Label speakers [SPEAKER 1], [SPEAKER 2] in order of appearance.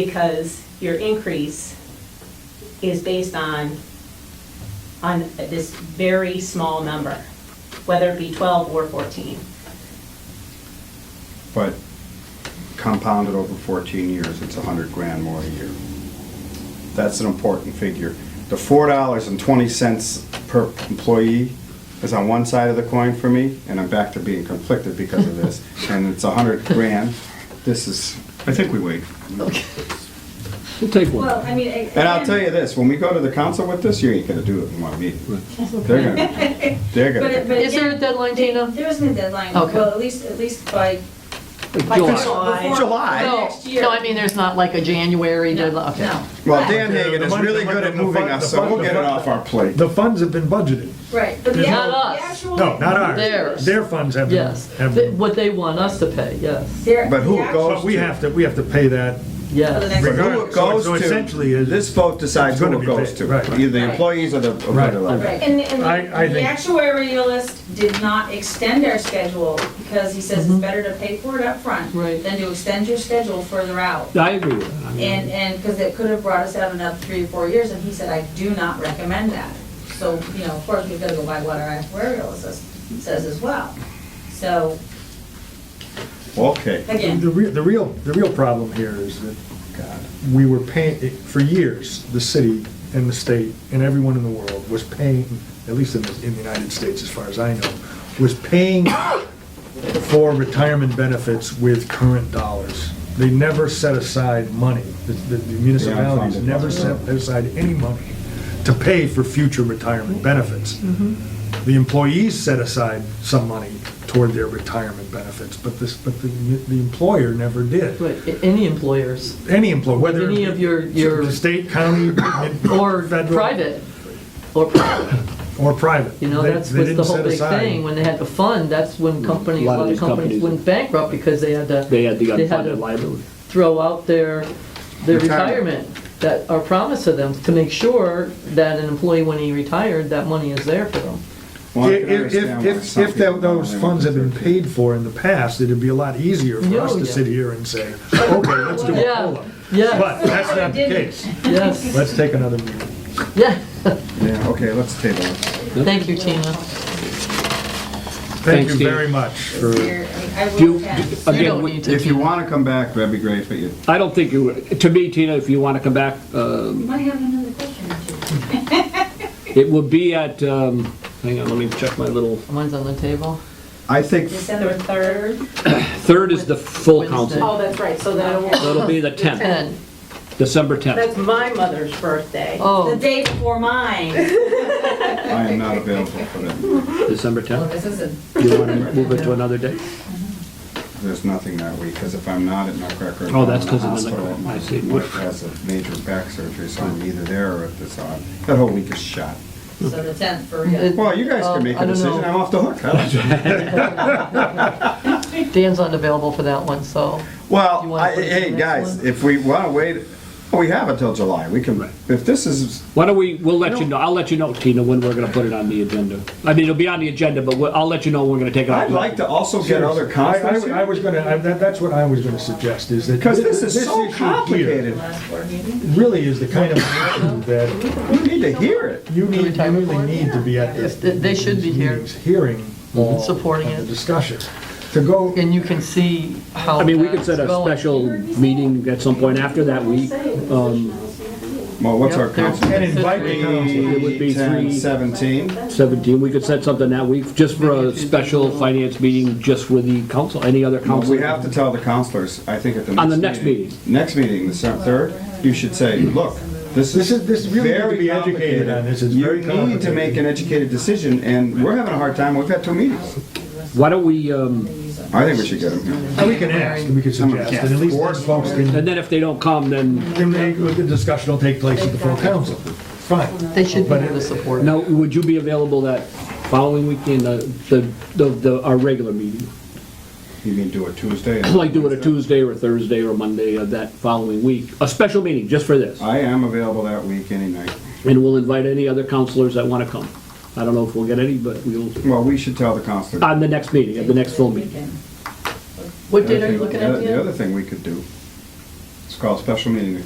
[SPEAKER 1] because your increase is based on, on this very small number, whether it be 12 or 14.
[SPEAKER 2] But compounded over 14 years, it's 100 grand more a year. That's an important figure. The $4.20 per employee is on one side of the coin for me, and I'm back to being conflicted because of this, and it's 100 grand. This is, I think we wait.
[SPEAKER 3] We'll take one.
[SPEAKER 4] Well, I mean. a-
[SPEAKER 2] And I'll tell you
[SPEAKER 4] again-
[SPEAKER 2] this, when we go to the council with this, you ain't gonna do it in one meeting. They're gonna, they're
[SPEAKER 4] But, it- but.
[SPEAKER 2] gonna.
[SPEAKER 5] Is there a
[SPEAKER 4] again,
[SPEAKER 5] deadline,
[SPEAKER 4] they-
[SPEAKER 5] Tina?
[SPEAKER 4] There isn't a deadline.
[SPEAKER 5] Okay.
[SPEAKER 4] Well, at least, at least by. by
[SPEAKER 3] July.
[SPEAKER 1] July.
[SPEAKER 4] before-
[SPEAKER 2] July?
[SPEAKER 4] by
[SPEAKER 5] No,
[SPEAKER 4] Next year.
[SPEAKER 5] no, I mean, there's not like a January
[SPEAKER 4] No,
[SPEAKER 5] deadline, okay.
[SPEAKER 4] no.
[SPEAKER 2] Well, Dan
[SPEAKER 6] The-
[SPEAKER 2] Hagan
[SPEAKER 6] the
[SPEAKER 2] is
[SPEAKER 6] money-
[SPEAKER 2] really
[SPEAKER 6] the
[SPEAKER 2] good
[SPEAKER 6] money-
[SPEAKER 2] at
[SPEAKER 6] the
[SPEAKER 2] moving
[SPEAKER 6] fund-
[SPEAKER 2] us,
[SPEAKER 6] the
[SPEAKER 2] so we'll
[SPEAKER 6] fund-
[SPEAKER 2] get it off our plate.
[SPEAKER 6] The funds have been budgeted.
[SPEAKER 4] Right, but the.
[SPEAKER 5] Not
[SPEAKER 4] act-
[SPEAKER 5] us.
[SPEAKER 4] the actual-
[SPEAKER 6] No, not ours.
[SPEAKER 5] Theirs.
[SPEAKER 6] Their funds have been.
[SPEAKER 5] Yes,
[SPEAKER 6] have
[SPEAKER 5] Th-
[SPEAKER 6] been-
[SPEAKER 5] what they want us to pay, yes,
[SPEAKER 4] their-
[SPEAKER 2] But who
[SPEAKER 4] the actual-
[SPEAKER 2] goes
[SPEAKER 6] But we have to, we have to pay that.
[SPEAKER 4] For the
[SPEAKER 5] yes.
[SPEAKER 4] next
[SPEAKER 2] But who
[SPEAKER 4] year.
[SPEAKER 2] it
[SPEAKER 6] So-
[SPEAKER 2] goes
[SPEAKER 6] so essentially
[SPEAKER 2] to,
[SPEAKER 6] is-
[SPEAKER 2] this vote decides
[SPEAKER 6] it's
[SPEAKER 2] who
[SPEAKER 6] gonna
[SPEAKER 2] it
[SPEAKER 6] be
[SPEAKER 2] goes
[SPEAKER 6] paid,
[SPEAKER 2] to,
[SPEAKER 6] right.
[SPEAKER 2] either the employees or the, or
[SPEAKER 6] Right.
[SPEAKER 2] the lawyer.
[SPEAKER 4] Right, and, and
[SPEAKER 6] I- I
[SPEAKER 4] the- the
[SPEAKER 6] think-
[SPEAKER 4] actuarialist did not extend our schedule because he says
[SPEAKER 6] Mm-hmm.
[SPEAKER 4] it's better to pay for it up front
[SPEAKER 5] Right.
[SPEAKER 4] than to extend your schedule further out.
[SPEAKER 3] I agree with that. I
[SPEAKER 4] And,
[SPEAKER 3] mean,
[SPEAKER 4] and, because it could have brought us out another three or four years, and he said, I do not recommend that. So, you know, of course, we've got to go by what our actuarial says, says as well. So,
[SPEAKER 2] Okay.
[SPEAKER 4] again,
[SPEAKER 6] The real, the real, the real problem here is that
[SPEAKER 2] God.
[SPEAKER 6] we were paying, for years, the city and the state and everyone in the world was paying, at least in the, in the United States, as far as I know, was paying for retirement benefits with current dollars. They never set aside money. The- The the municipalities
[SPEAKER 2] unfunded
[SPEAKER 6] never
[SPEAKER 2] ones,
[SPEAKER 6] set aside any money to pay for future retirement benefits. The employees set aside some money toward their retirement benefits, but this, but the, the employer never did
[SPEAKER 5] Right, a- any employers,
[SPEAKER 6] any employee, whether.
[SPEAKER 5] Any of your- your-
[SPEAKER 6] State, county.
[SPEAKER 5] or
[SPEAKER 6] federal,
[SPEAKER 5] private, or, private.
[SPEAKER 6] Or private.
[SPEAKER 5] you know,
[SPEAKER 6] They-
[SPEAKER 5] that's
[SPEAKER 6] they
[SPEAKER 5] was the
[SPEAKER 6] didn't
[SPEAKER 5] whole
[SPEAKER 6] set
[SPEAKER 5] big
[SPEAKER 6] aside. Mm-hmm.
[SPEAKER 5] thing, when they had the fund, that's when companies, a
[SPEAKER 3] lot of
[SPEAKER 5] lot of
[SPEAKER 3] these
[SPEAKER 5] companies
[SPEAKER 3] companies-
[SPEAKER 5] went bankrupt because they had to.
[SPEAKER 3] They had the
[SPEAKER 5] they had to
[SPEAKER 3] unfunded liability.
[SPEAKER 5] Throw out their, their
[SPEAKER 2] Retirement.
[SPEAKER 5] retirement, that are promised to them, to make sure that an employee, when he retired, that money is there for them.
[SPEAKER 2] Well, I can
[SPEAKER 6] If,
[SPEAKER 2] understand
[SPEAKER 6] if,
[SPEAKER 2] why
[SPEAKER 6] if,
[SPEAKER 2] some
[SPEAKER 6] if
[SPEAKER 2] people
[SPEAKER 6] tho- those
[SPEAKER 2] don't
[SPEAKER 6] funds had been
[SPEAKER 2] want to do
[SPEAKER 6] paid for in the past, it'd be a lot easier for us
[SPEAKER 5] Oh,
[SPEAKER 6] to
[SPEAKER 5] yeah.
[SPEAKER 6] sit here and say, okay, let's do a
[SPEAKER 5] Yeah.
[SPEAKER 6] COLA.
[SPEAKER 5] Yes.
[SPEAKER 6] But that's not the case.
[SPEAKER 5] Yes,
[SPEAKER 6] Let's take another meeting.
[SPEAKER 5] yeah,
[SPEAKER 2] surgery. Yeah, okay, let's table it.
[SPEAKER 5] thank you, Tina.
[SPEAKER 6] Thank
[SPEAKER 3] Thanks,
[SPEAKER 6] you
[SPEAKER 3] Steve.
[SPEAKER 6] very much for,
[SPEAKER 4] here, I I
[SPEAKER 3] Do,
[SPEAKER 4] will
[SPEAKER 3] do-
[SPEAKER 4] pass.
[SPEAKER 5] You don't
[SPEAKER 3] again, we-
[SPEAKER 5] need to.
[SPEAKER 2] If you
[SPEAKER 5] Tina.
[SPEAKER 2] want to come back, that'd be great, but you,
[SPEAKER 3] I don't think you, to me, Tina, if you want to come back, uh,
[SPEAKER 4] You might have another question or two.
[SPEAKER 3] it will be at, um, hang on, let me check my little,
[SPEAKER 5] Mine's on the table.
[SPEAKER 2] I think,
[SPEAKER 4] December 3rd,
[SPEAKER 3] third is the full council.
[SPEAKER 1] Oh, that's right, so that will,
[SPEAKER 3] That'll be the 10th,
[SPEAKER 5] Ten.
[SPEAKER 3] December 10th.
[SPEAKER 1] that's my mother's birthday.
[SPEAKER 4] the
[SPEAKER 5] Oh,
[SPEAKER 4] day before mine.
[SPEAKER 2] I am not available for that.
[SPEAKER 3] December
[SPEAKER 4] Well,
[SPEAKER 3] 10th.
[SPEAKER 4] this isn't,
[SPEAKER 3] Do you want to move it to another day?
[SPEAKER 2] There's nothing that week, because if I'm not at Nutcracker.
[SPEAKER 3] Oh, that's
[SPEAKER 2] I'm in
[SPEAKER 3] 'cause of the
[SPEAKER 2] hospital.
[SPEAKER 3] Nutcracker. I see.
[SPEAKER 2] My wife has a major back surgery, so I'm either there or at this on. That whole week is shot.
[SPEAKER 4] so the 10th for, uh,
[SPEAKER 5] It-
[SPEAKER 2] Well, you guys
[SPEAKER 5] Um,
[SPEAKER 2] can make
[SPEAKER 5] I
[SPEAKER 2] a
[SPEAKER 5] don't
[SPEAKER 2] decision,
[SPEAKER 5] know.
[SPEAKER 2] I'm off the hook. I don't-
[SPEAKER 5] Dan's unavailable for that one, so, You
[SPEAKER 2] Well,
[SPEAKER 5] wanna
[SPEAKER 2] I,
[SPEAKER 5] put it to
[SPEAKER 2] hey,
[SPEAKER 5] the next
[SPEAKER 2] guys,
[SPEAKER 5] one?
[SPEAKER 2] if we want to wait, we have until July. We can, if this is,
[SPEAKER 3] Why don't we, we'll let you know, I'll let you know, Tina, when we're going to put it on the agenda. I mean, it'll be on the agenda, but we'll- I'll let you know when we're going to take it. off.
[SPEAKER 2] I'd like to also get other
[SPEAKER 6] I, I-
[SPEAKER 2] conferences.
[SPEAKER 6] I was gonna, I- that, that's what I was gonna suggest, is that.
[SPEAKER 2] Because this is so
[SPEAKER 6] issue here
[SPEAKER 2] complicated.
[SPEAKER 4] last board meeting.
[SPEAKER 6] Really is the kind of issue that
[SPEAKER 2] You need to hear it.
[SPEAKER 6] You need, you
[SPEAKER 5] retirement
[SPEAKER 6] really
[SPEAKER 5] board?
[SPEAKER 6] need to be at this.
[SPEAKER 5] They- they should be here.
[SPEAKER 6] meetings, Hearing all.
[SPEAKER 5] Supporting
[SPEAKER 6] of the
[SPEAKER 5] it.
[SPEAKER 6] Discussion. To go,
[SPEAKER 5] and you can see how
[SPEAKER 3] I mean, we could
[SPEAKER 5] that's
[SPEAKER 3] set a
[SPEAKER 5] going.
[SPEAKER 3] special meeting at some point after that week. Um,
[SPEAKER 2] Well, what's
[SPEAKER 5] Yep,
[SPEAKER 2] our
[SPEAKER 5] there's-
[SPEAKER 2] council?
[SPEAKER 6] and invite the council.
[SPEAKER 3] It would be
[SPEAKER 2] 10,
[SPEAKER 3] three-
[SPEAKER 2] 17.
[SPEAKER 3] 17, we could set something that week, just for a special finance meeting, just with the council, any other
[SPEAKER 2] Well,
[SPEAKER 3] council.
[SPEAKER 2] We have to tell the counselors, I think at the next.
[SPEAKER 3] On the next meeting.
[SPEAKER 2] Next meeting, the se- third, you should say, look, this
[SPEAKER 6] This
[SPEAKER 2] is
[SPEAKER 6] is- this really need to
[SPEAKER 2] very
[SPEAKER 6] be educated on this. It's very
[SPEAKER 2] You need to make an
[SPEAKER 6] complicated.
[SPEAKER 2] educated decision, and we're having a hard time. We've had two meetings.
[SPEAKER 3] Why don't we, um,
[SPEAKER 2] I think we should get them here.
[SPEAKER 6] we can ask, and we can
[SPEAKER 2] Someone
[SPEAKER 6] suggest,
[SPEAKER 2] cast
[SPEAKER 6] and at least
[SPEAKER 2] board
[SPEAKER 6] those folks can,
[SPEAKER 3] and then if they don't come, then,
[SPEAKER 6] can make- the discussion will take place at the full council. Fine.
[SPEAKER 5] They should be
[SPEAKER 6] But
[SPEAKER 5] able to
[SPEAKER 6] it-
[SPEAKER 5] support.
[SPEAKER 3] now, would you be available that following weekend, the, the- the, the our regular meeting?
[SPEAKER 2] You mean do it Tuesday?
[SPEAKER 3] Like do it a Tuesday or Thursday or Monday of that following week, a special meeting, just for this,
[SPEAKER 2] I am available that week, any night.
[SPEAKER 3] and we'll invite any other counselors that want to come. I don't know if we'll get any, but we'll,
[SPEAKER 2] Well, we should tell the counselor.
[SPEAKER 3] on the next meeting, at the next full meeting.
[SPEAKER 5] What
[SPEAKER 2] The
[SPEAKER 5] date
[SPEAKER 2] other
[SPEAKER 5] are you
[SPEAKER 2] thing-
[SPEAKER 5] looking
[SPEAKER 2] the
[SPEAKER 5] at,
[SPEAKER 2] other- The
[SPEAKER 5] Dan?
[SPEAKER 2] other thing we could do It's called special meeting to